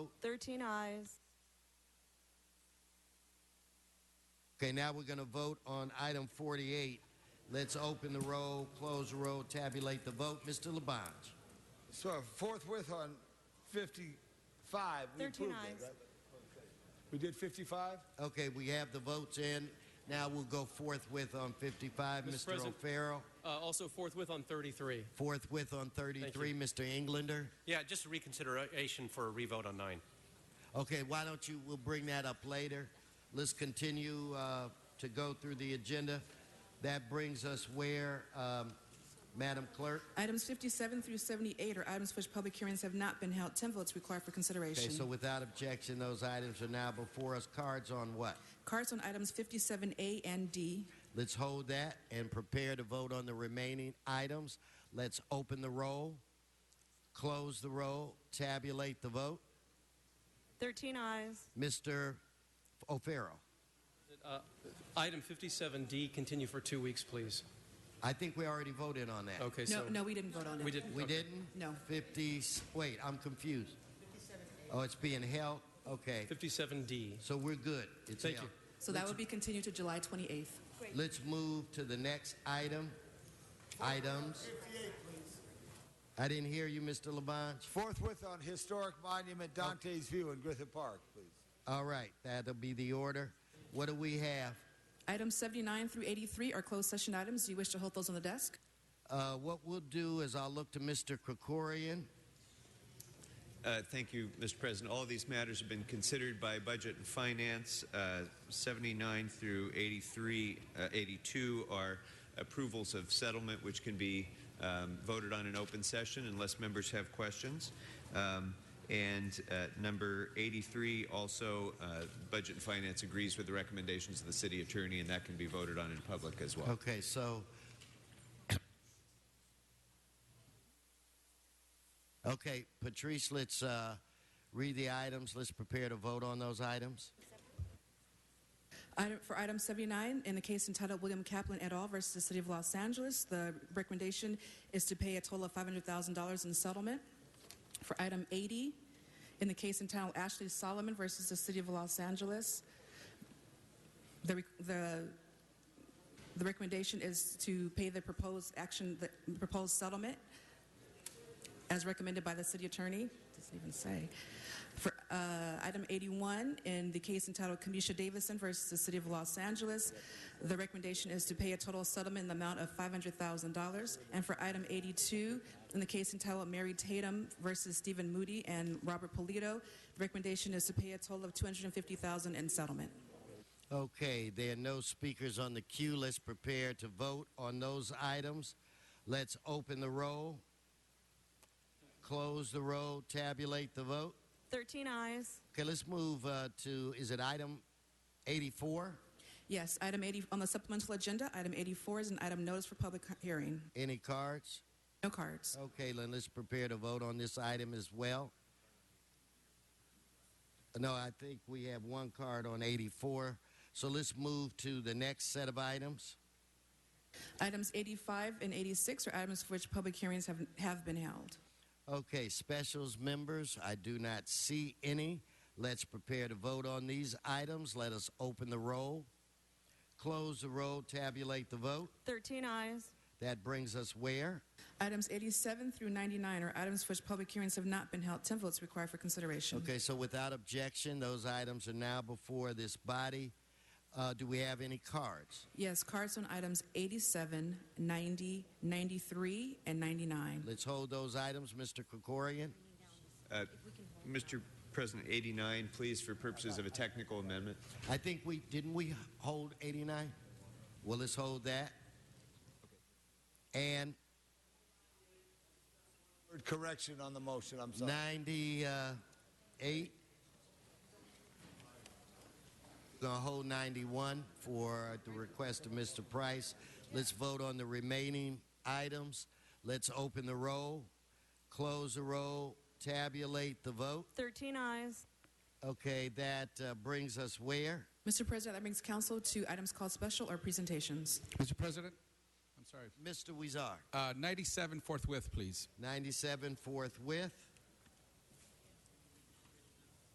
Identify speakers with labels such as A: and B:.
A: 13 eyes.
B: Okay, now we're going to vote on item 48. Let's open the roll, close the roll, tabulate the vote. Mr. Labange.
C: So forthwith on 55, we
A: 13
C: approved
A: ayes.
C: it, right? We did 55?
B: Okay, we have the votes in. Now we'll go forthwith on 55.
D: Mr.
B: Mr.
D: President.
B: O'Farrell.
D: Uh, also forthwith on 33.
B: Forthwith on 33. Mr. Englander.
E: Yeah, just a reconsideration for a revote on nine.
B: Okay, why don't you, we'll bring that up later. Let's continue uh, to go through the agenda. That brings us where, um, Madam Clerk?
F: Items 57 through 78 are items for which public hearings have not been held. 10 votes required for
B: Okay, so
F: consideration.
B: without objection, those items are now before us. Cards on what?
F: Cards on items 57A and D.
B: Let's hold that and prepare to vote on the remaining items. Let's open the roll, close the roll, tabulate the vote.
A: 13 eyes.
B: Mr. O'Farrell,
D: Item 57D, continue for two weeks, please.
B: I think we already voted on that.
D: Okay,
F: No,
D: so
F: no, we didn't vote on it.
D: we didn't.
B: We
D: okay.
B: didn't?
F: No.
B: 50, wait, I'm confused. Oh, it's being held? Okay.
D: 57D.
B: So we're good. It's
D: Thank
B: held.
D: you.
F: So that would be continued to July 28th.
B: Let's move to the next item. Items. I didn't hear you, Mr. Labange.
C: Forthwith on historic monument Dante's View in Griffith Park, please.
B: All right, that'll be the order. What do we have?
F: Items 79 through 83 are closed session items. Do you wish to hold those on the desk?
B: Uh, what we'll do is I'll look to Mr. Krikorian.
G: Uh, Thank you, Mr. President. All of these matters have been considered by Budget and Finance. Uh, 79 through 83, uh, 82 are approvals of settlement, which can be um, voted on in open session unless members have questions. Um, and uh, number 83 also, uh, Budget and Finance agrees with the recommendations of the City Attorney, and that can be voted on in public as well.
B: Okay, so. Okay, Patrice, let's uh, read the items. Let's prepare to vote on those items.
F: Item, for item 79, in the case entitled William Kaplan et al. versus the City of Los Angeles, the recommendation is to pay a total of $500,000 in settlement. For item 80, in the case entitled Ashley Solomon versus the City of Los Angeles, the, re- the, the recommendation is to pay the proposed action, the proposed settlement as recommended by the city attorney. Doesn't even say. For uh, item 81, in the case entitled Kamisha Davison versus the City of Los Angeles, the recommendation is to pay a total settlement in the amount of $500,000. And for item 82, in the case entitled Mary Tatum versus Stephen Moody and Robert Polito, the recommendation is to pay a total of $250,000 in settlement.
B: Okay, there are no speakers on the queue. Let's prepare to vote on those items. Let's open the roll, close the roll, tabulate the vote.
A: 13 eyes.
B: Okay, let's move uh, to, is it item 84?
F: Yes, item 80 on the supplemental agenda, item 84 is an item notice for public hearing.
B: Any cards?
F: No cards.
B: Okay, then let's prepare to vote on this item as well. No, I think we have one card on 84. So let's move to the next set of items.
F: Items 85 and 86 are items for which public hearings have, have been held.
B: Okay, specials members, I do not see any. Let's prepare to vote on these items. Let us open the roll, close the roll, tabulate the vote.
A: 13 eyes.
B: That brings us where?
F: Items 87 through 99 are items for which public hearings have not been held. 10 votes required for consideration.
B: Okay, so without objection, those items are now before this body. Uh, do we have any cards?
F: Yes, cards on items 87, 90, 93, and 99.
B: Let's hold those items, Mr. Krikorian.
G: Uh, Mr. President, 89, please, for purposes of a technical amendment.
B: I think we didn't we hold 89? Well, let's hold that. And
C: Word Correction on the motion, I'm sorry.
B: 98. Gonna hold 91 for the request of Mr. Price. Let's vote on the remaining items. Let's open the roll, close the roll, tabulate the vote.
A: 13 eyes.
B: Okay, that uh, brings us where?
F: Mr. President, that brings council to items called special or presentations.
H: Mr. President, I'm sorry.
B: Mr. Weezar.
H: Uh, 97 forthwith, please.
B: 97 forthwith.